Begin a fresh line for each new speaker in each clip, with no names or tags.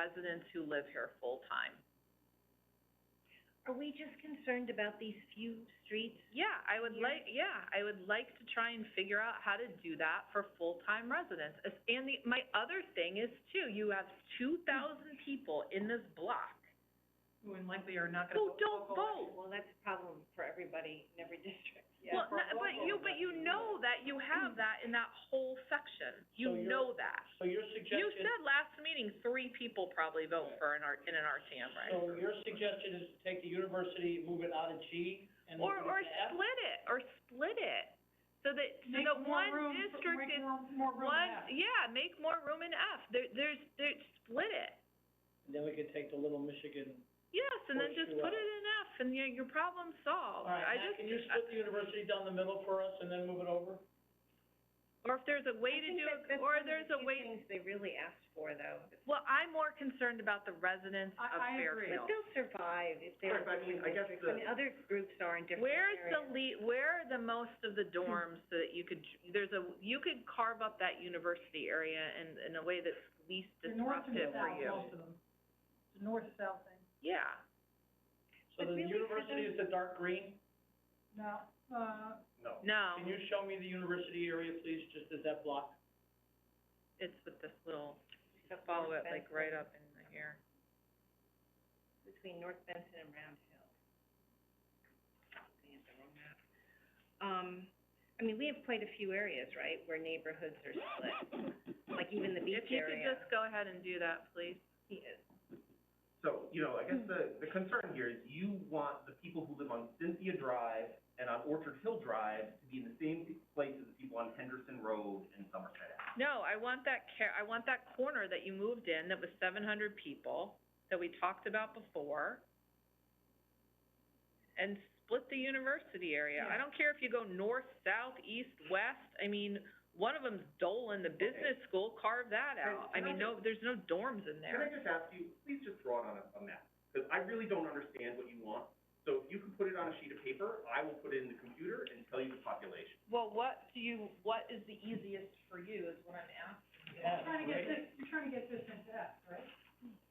residents who live here full-time.
Are we just concerned about these few streets?
Yeah, I would
Yeah.
like, yeah, I would like to try and figure out how to do that for full-time residents. As- And the, my other thing is too, you have two thousand people in this block
Who likely are not
who don't vote.
Well, that's a problem for everybody in every district.
Well, no- but you, but you know that you have that in that whole section.
So
You
you're-
know that.
So your
You
suggestion,
said last meeting, three people probably vote for an R, in an RTM,
so
right?
your suggestion is to take the university, move it out of G and move
Or,
it
or
to F?
split it, or split it, so that, so that one district is, one, yeah, make more room in F. There, there's, there, split it.
And then we could take the Little Michigan.
Yes, and then
Or
just
two
put
out.
it in F, and your, your problem solved.
Alright,
I
Matt,
just,
can you split the university down the middle for us and then move it over?
or if there's a way to do, it, or there's a way,
I think that, that's one of the few things they really asked for, though.
well, I'm more concerned about the residents
I-
of
I agree.
But
Fairfield.
they'll survive if they're
Sure, but I
living
mean, I guess
districts.
the-
I mean, other groups are in different
Where's the
areas.
le, where are the most of the dorms so that you could, there's a, you could carve up that university area in, in a way that's least
The north and
disruptive for
south,
you.
most of them. The north-south thing.
Yeah,
So
But
the
really for
university is the dark green?
No, uh,
No.
no,
Can you show me the university area, please, just as that block?
it's with this little,
Except
follow
for
it
North
like
Benson,
right up in here.
Between North Benson and Round Hill. I have the wrong map. Um, I mean, we have quite a few areas, right, where neighborhoods are split, like even the beach
If you could
area.
just go ahead and do that, please.
Yeah.
So, you know, I
Hmm.
guess the, the concern here is you want the people who live on Cynthia Drive and on Orchard Hill Drive to be in the same place as the people on Henderson Road and Somerset Ave.
No, I want that care, I want that corner that you moved in that was seven hundred people, that we talked about before, and split the university area. I
Yeah.
don't care if you go north, south, east, west, I mean, one of them's Dolan, the business school, carve that
Can-
out. I
can I
mean, no, there's no dorms in
Can I
there.
just ask you, please just draw it on a, a map, because I really don't understand what you want. So if you can put it on a sheet of paper, I will put it in the computer and tell you the population.
Well, what do you, what is the easiest for you is what I'm asking.
Yeah,
trying to get
great.
this, you're trying to get this into F, right?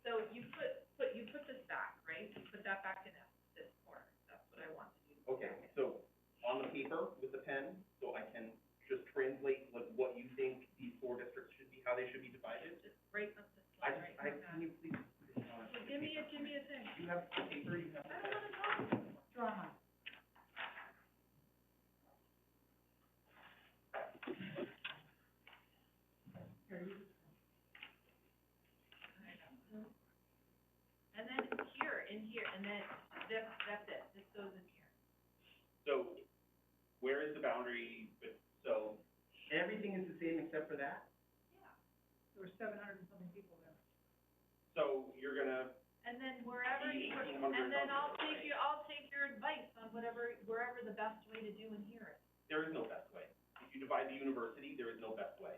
So you put, put, you put this back, right? You put that back in this corner, that's what I want to do.
Okay, so on the paper with the pen, so I can just translate like what you think these four districts should be, how they should be divided.
Just break up the
I, just- I, can you please put it on a sheet of
Give me a,
paper?
give me a thing.
You have the paper, you have the pen.
Draw mine. Here, you
And then here, in here, and then that's, that's it, this goes in here.
So, where is the boundary, but, so, everything is the same except for that?
there were seven hundred and something people there.
So, you're gonna,
And then wherever, you-
Eighteen
and
hundred
then I'll
dollars,
take you, I'll take your advice on whatever, wherever the best way to do and hear it.
there is no best way. If you divide the university, there is no best way.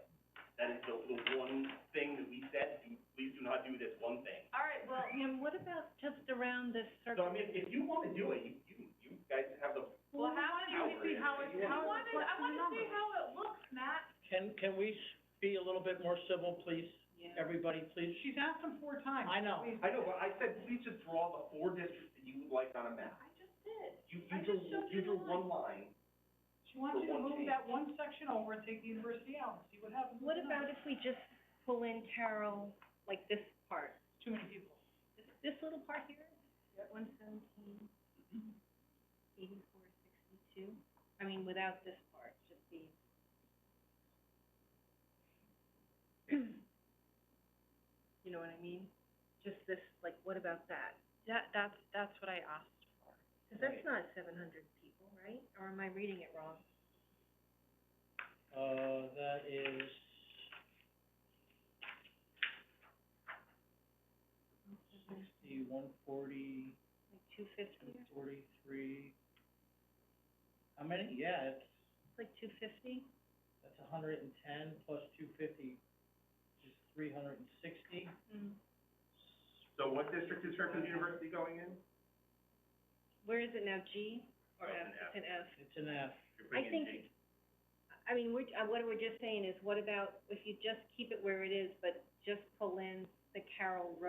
That is the, the one thing that we said, do, please do not do this one thing.
All right, well,
And what about just around this
So,
circle?
I mean, if you wanna do it, you, you, you guys have the,
well, how,
how
do you,
it-
how it,
you
I
want-
wanna, I wanna see how it looks, Matt.
Can, can we s- be a little bit more civil, please? Everybody, please?
She's asked them four times.
I know.
Please.
I know, but I said, please just draw the four districts that you would like on a map.
I just did.
You,
I
you drew,
just showed
you
you
drew
the
one line,
She wants you to
For one
move that one section over and take the university out and see what happens.
What about if we just pull in Carroll, like this part,
Too many people.
this, this little part here? One seventeen, eighty-four, sixty-two, I mean, without this part, just the. You know what I mean? Just this, like, what about that?
That, that's, that's what I asked for.
Cause that's not seven hundred people, right? Or am I reading it wrong?
Uh, that is, sixty, one forty,
Like two fifty,
two forty-three. How many? Yeah, it's,
like two fifty?
that's a hundred and ten plus two fifty, is three hundred and sixty.
Mm.
so what district is Fairfield University going in?
Where is it now, G or
Oh,
F?
it's an F.
It's an F.
It's an F.
You're
I
putting in
think,
G.
I mean, we're, uh, what we're just saying is, what about if you just keep it where it is, but just pull in the Carroll Road